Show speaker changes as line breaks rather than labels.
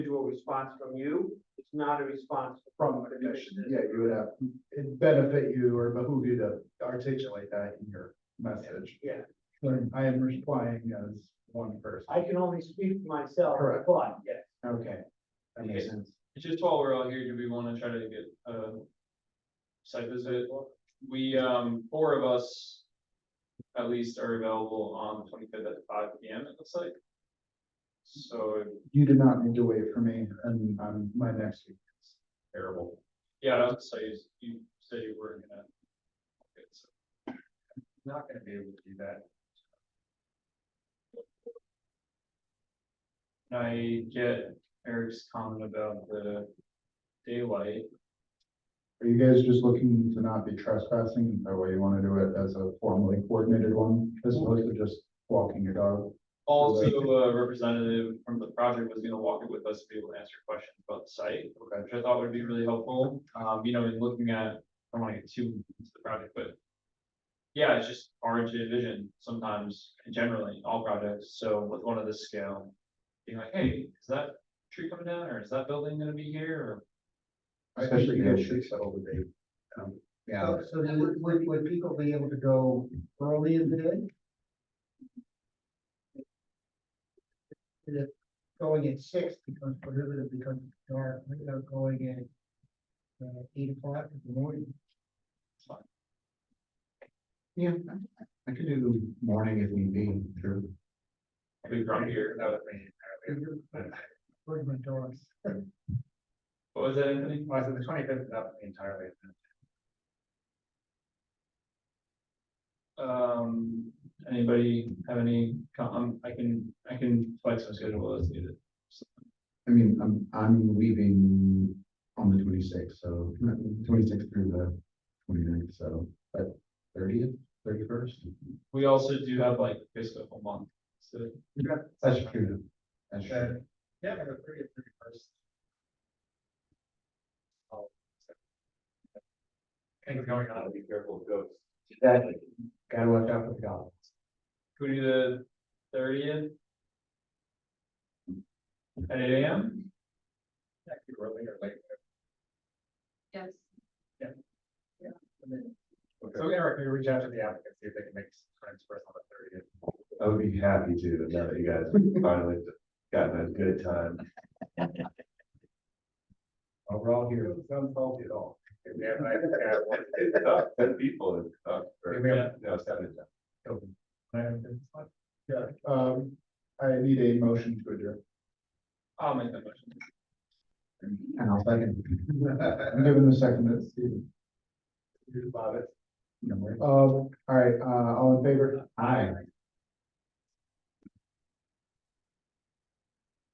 do a response from you, it's not a response
from
from
the
the
commission,
commissioners.
yeah, you would have, it'd benefit you or behoove you to articulate that in your message.
Yeah.
When I am replying as one person.
I can only speak for myself,
Correct.
but, yeah,
Okay. That makes sense.
It's just while we're all here, do we wanna try to get a site visit? We, um, four of us at least are available on the twenty-fifth at five P M, it looks like. So,
You do not need to wait for me and um my next week is terrible.
yeah, I'd say you said you were gonna. Okay, so
Not gonna be able to do that.
Can I get Eric's comment about the daylight?
Are you guys just looking to not be trespassing? Is that why you wanna do it as a formally coordinated one? As opposed to just walking your dog?
Also, a representative from the project was gonna walk it with us to be able to answer questions about the site, which I thought would be really helpful. Um, you know, in looking at, I don't wanna get too into the project, but. Yeah, it's just hard to envision sometimes, and generally, in all projects, so with one of this scale. Being like, hey, is that tree coming down, or is that building gonna be here, or?
I think you guys should
settle the date. Yeah,
So, so then would, would, would people be able to go early in the day? Is it Going at six becomes prohibitive because it's dark, we are going at uh, eight o'clock in the morning.
yeah, I could do morning if need be, sure.
Maybe from here, that would-
Put my dogs.
what was that, Anthony?
Well, so the twenty fifth is up entirely.
Um, anybody have any, com- um, I can, I can flex my schedule as needed.
I mean, I'm, I'm leaving on the twenty sixth, so twenty sixth through the 29th. so, but thirtieth, thirty first.
We also do have like basically a whole month, so.
That's true. That's true.
Yeah, the thirty, thirty first. Things going on.
Be careful of ghosts. Exactly. Gotta watch out for the goblins.
Could we do the thirtieth? At eight AM?
That could be early or late.
Yes,
So Eric, you reach out to the applicant, see if they can make friends first on the thirtieth. I would be happy to, now that you guys finally gotten a good time. Overall here. Don't fault at all. We have, I think I have one. Ten people. uh,
we have-
No, seven.
Yeah, um, I need a motion to adjourn.
I'll make that motion.
And I'll second.
I'm giving the second to Stephen. Here's about it. Um, all right, uh, all in favor?
Hi.